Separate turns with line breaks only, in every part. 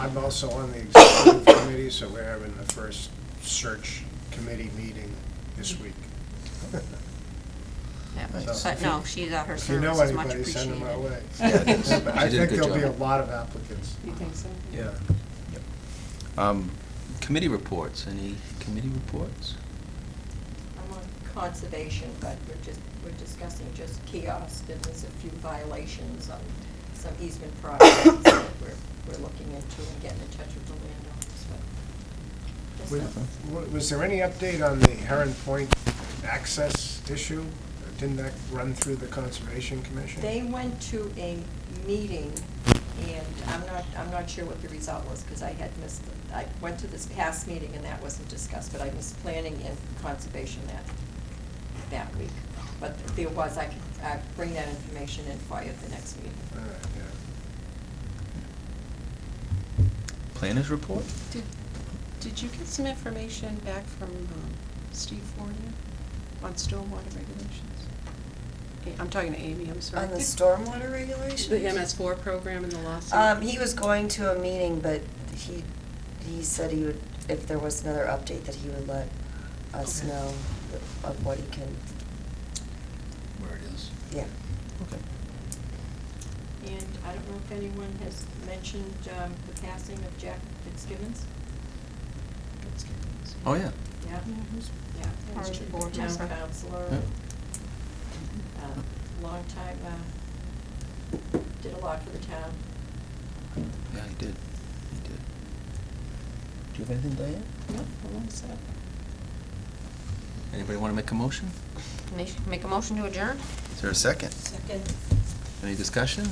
I'm also on the executive committee, so we're having the first search committee meeting this week.
Yeah,
Nice.
But no, she's, uh, her
If you
service
know
is much
anybody, send
appreciated.
them our way.
Yeah, thanks.
But I
She did a
think
good
there'll be a
job.
lot of applicants.
You think so?
Yeah.
Um, Committee reports, any committee reports?
I'm on conservation, but we're just, we're discussing just kiosks, and there's a few violations on some easement projects that we're, we're looking into and getting in touch with the landowners, but. just
Was
nothing.
was there any update on the Heron Point access issue? Didn't that run through the Conservation Commission?
They went to a meeting, and I'm not, I'm not sure what the result was, because I had missed, the- I went to this past meeting and that wasn't discussed, but I was planning and conservation that, that week. But there was, I could, uh bring that information in for you at the next meeting.
All right, yeah.
Planners report?
Did, did you get some information back from um, Steve Fournier on stormwater regulations? Eh, I'm talking to Amy, I'm sorry.
On the stormwater regulations?
The MS four program and the lawsuit?
Um, he was going to a meeting, but he, he said he would, if there was another update, that he would let us
Okay.
know of what he can,
Where it is.
yeah.
Okay.
And I don't know if anyone has mentioned um, the passing of Jack Fitzgibbons?
Oh, yeah.
Yeah. Yeah.
Part of the board
Town
member.
councilor.
Yeah.
um, Long time, uh, did a lot for the town.
Yeah, he did. He did. Do you have anything, Diane?
Nope, hold on a sec.
Anybody want to make a motion?
Make- Make a motion to adjourn?
Is there a second?
Second.
Any discussion?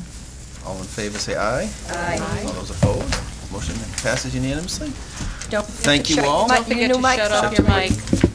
All in favor, say aye.
Aye.
Aye.
All those opposed? Motion passes unanimously.
Don't
Thank you all.
Don't forget to shut off your mic.